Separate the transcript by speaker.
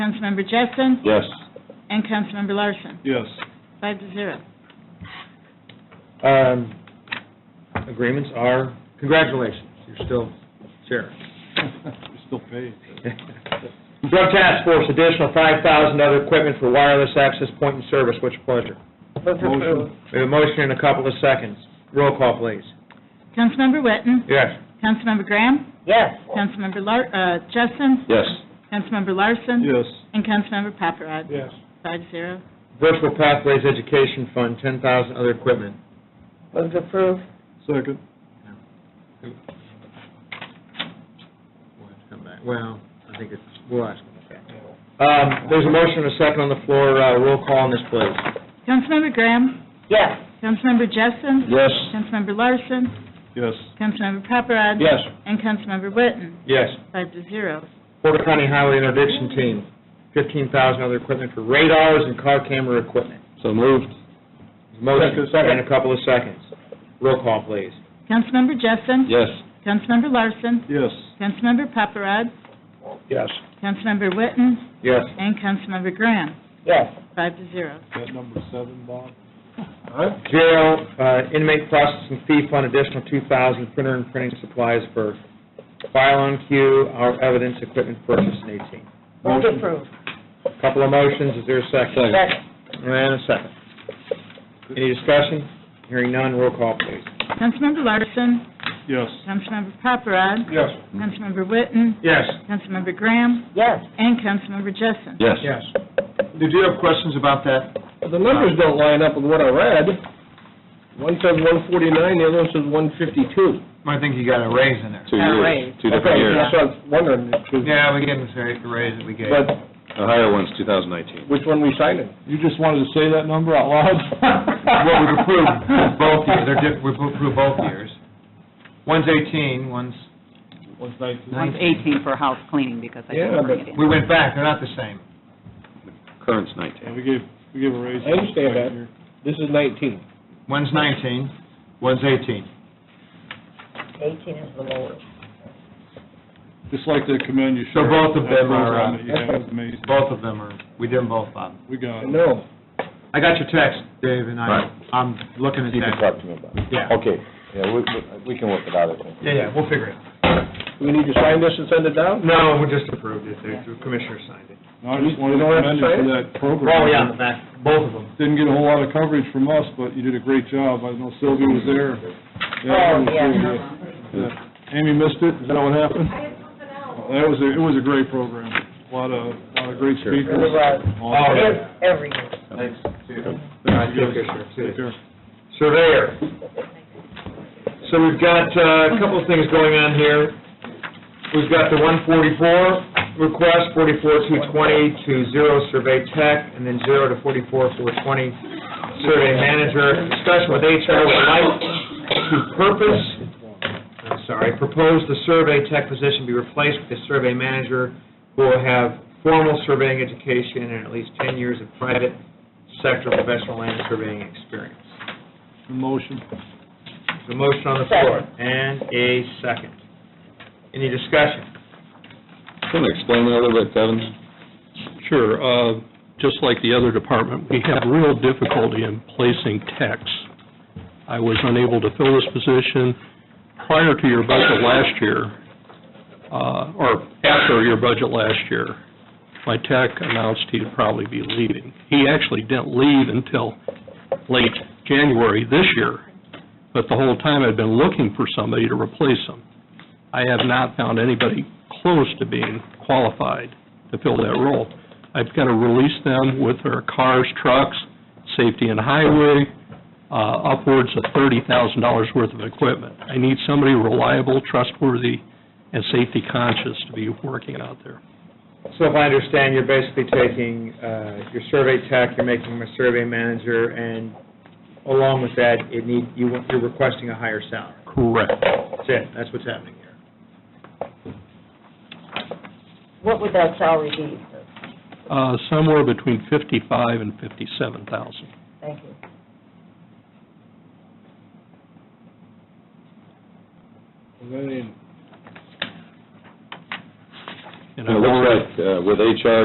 Speaker 1: Councilmember Jessen
Speaker 2: Yes.
Speaker 1: and Councilmember Larson,
Speaker 2: Yes.
Speaker 1: five to zero.
Speaker 3: Um, agreements are, congratulations, you're still chair.
Speaker 2: We still paid.
Speaker 3: Drug Task Force, additional five thousand other equipment for wireless access point and service, what's your pleasure?
Speaker 2: Motion.
Speaker 3: We have a motion in a couple of seconds. Roll call, please.
Speaker 1: Councilmember Witten,
Speaker 3: Yes.
Speaker 1: Councilmember Graham,
Speaker 4: Yes.
Speaker 1: Councilmember Lar, uh, Jessen,
Speaker 2: Yes.
Speaker 1: Councilmember Larson.
Speaker 2: Yes.
Speaker 1: And Councilmember Paparad.
Speaker 2: Yes.
Speaker 1: Five zero.
Speaker 3: Virtual Pathways Education Fund, ten thousand other equipment.
Speaker 4: Move to approve.
Speaker 2: Second.
Speaker 3: Well, I think it's, we'll ask them about that. Um, there's a motion and a second on the floor, uh, roll call on this, please.
Speaker 1: Councilmember Graham,
Speaker 4: Yes.
Speaker 1: Councilmember Jessen.
Speaker 2: Yes.
Speaker 1: Councilmember Larson,
Speaker 2: Yes.
Speaker 1: Councilmember Paparad.
Speaker 2: Yes.
Speaker 1: And Councilmember Witten,
Speaker 3: Yes.
Speaker 1: five to zero.
Speaker 3: Porter County Highway Interdiction Team, fifteen thousand other equipment for radars and car camera equipment.
Speaker 2: So moved.
Speaker 3: Motion,
Speaker 2: Second.
Speaker 3: second, in a couple of seconds. Roll call, please.
Speaker 1: Councilmember Jessen.
Speaker 2: Yes.
Speaker 1: Councilmember Larson,
Speaker 2: Yes.
Speaker 1: Councilmember Paparad,
Speaker 2: Yes.
Speaker 1: Councilmember Witten,
Speaker 3: Yes.
Speaker 1: and Councilmember Graham,
Speaker 4: Yes.
Speaker 1: five to zero.
Speaker 2: That number seven, Bob?
Speaker 3: Jail uh, inmate processing fee fund, additional two thousand, printer and printing supplies for file on queue, our evidence equipment purchase in eighteen.
Speaker 4: Move to
Speaker 2: Motion.
Speaker 4: approve.
Speaker 3: Couple of motions, is there a second?
Speaker 4: Yes.
Speaker 3: And a second. Any discussion? Hearing none, roll call, please.
Speaker 1: Councilmember Larson,
Speaker 2: Yes.
Speaker 1: Councilmember Paparad,
Speaker 2: Yes.
Speaker 1: Councilmember Witten,
Speaker 3: Yes.
Speaker 1: Councilmember Graham,
Speaker 4: Yes.
Speaker 1: and Councilmember Jessen.
Speaker 2: Yes.
Speaker 3: Yes. Did you have questions about that?
Speaker 5: The numbers don't line up with what I read. One says one forty-nine, the other one says one fifty-two.
Speaker 3: I think you got a raise in there.
Speaker 2: Two
Speaker 4: All
Speaker 2: years,
Speaker 4: Oh, right.
Speaker 2: two
Speaker 5: Okay,
Speaker 2: different years.
Speaker 5: that's what I was wondering,
Speaker 3: Yeah, we gave him the raise that we gave.
Speaker 5: but
Speaker 2: The higher one's 2019.
Speaker 5: which one we signing?
Speaker 2: You just wanted to say that number out loud?
Speaker 3: Well, we've approved both years, they're, diff- we've approved both years. One's eighteen, one's
Speaker 2: One's 19.
Speaker 6: One's
Speaker 3: nineteen.
Speaker 6: 18 for house cleaning because I
Speaker 5: Yeah,
Speaker 6: didn't bring
Speaker 5: but
Speaker 6: it in.
Speaker 3: We went back, they're not the same.
Speaker 2: Current's
Speaker 7: Yeah,
Speaker 2: 19.
Speaker 7: we gave, we gave a raise.
Speaker 5: I understand that. This is nineteen.
Speaker 3: One's nineteen, one's eighteen.
Speaker 4: Eighteen is the lowest.
Speaker 7: Just like to commend you,
Speaker 3: So
Speaker 7: Sheriff.
Speaker 3: both of
Speaker 7: That
Speaker 3: them are,
Speaker 7: program
Speaker 3: uh,
Speaker 7: that you have is amazing.
Speaker 3: Both of them are, we did them both, Bob.
Speaker 7: We got it.
Speaker 5: No.
Speaker 3: I got your text, Dave, and I,
Speaker 2: Right.
Speaker 3: I'm looking at
Speaker 8: You can
Speaker 3: that.
Speaker 8: talk to me about it.
Speaker 3: Yeah.
Speaker 8: Okay, yeah, we, we- we can work it out, I think.
Speaker 3: Yeah, yeah, we'll figure it out.
Speaker 5: Do we need to sign this and send it down?
Speaker 3: No, we just approved it, the commissioner signed it.
Speaker 7: No, I just wanted to commend you for that program.
Speaker 3: Well, Oh, yeah, the back, both of them.
Speaker 7: Didn't get a whole lot of coverage from us, but you did a great job. I know Sylvia was there.
Speaker 4: Oh, yeah.
Speaker 7: yeah. Amy missed it, is that what happened? That was, a- it was a great program. A lot of, a lot of great speakers.
Speaker 4: It was.
Speaker 7: Awesome.
Speaker 4: Ev- Every year.
Speaker 3: Thanks, too.
Speaker 7: Thank you,
Speaker 3: Thank you,
Speaker 7: guys.
Speaker 3: sir.
Speaker 7: Take care.
Speaker 3: Surveyor. So we've got uh, a couple of things going on here. We've got the 144 request, 44220 to zero survey tech, and then zero to 44420 survey manager. Discussion with HR would like to purpose, I'm sorry, propose the survey tech position be replaced with a survey manager who will have formal surveying education and at least 10 years of private sector professional land surveying experience.
Speaker 7: Motion.
Speaker 3: The motion on the floor, and a second. Any discussion?
Speaker 2: Can you explain that a little bit, Kevin?
Speaker 9: Sure. Uh, Just like the other department, we have real difficulty in placing techs. I was unable to fill this position prior to your budget last year, uh, or after your budget last year. My tech announced he'd probably be leaving. He actually didn't leave until late January this year, but the whole time I'd been looking for somebody to replace him. I have not found anybody close to being qualified to fill that role. I've got to release them with their cars, trucks, safety and highway, uh, upwards of $30,000 worth of equipment. I need somebody reliable, trustworthy, and safety conscious to be working out there.
Speaker 3: So if I understand, you're basically taking uh, your survey tech, you're making him a survey manager, and along with that, it need, you want, you're requesting a higher salary.
Speaker 9: Correct.
Speaker 3: That's it, that's what's happening here.
Speaker 4: What would that salary be?
Speaker 9: Uh, Somewhere between 55 and 57,000.
Speaker 4: Thank you.
Speaker 7: Is that in?
Speaker 9: And
Speaker 2: It
Speaker 9: I've
Speaker 2: looks
Speaker 9: already-
Speaker 2: like uh, with HR,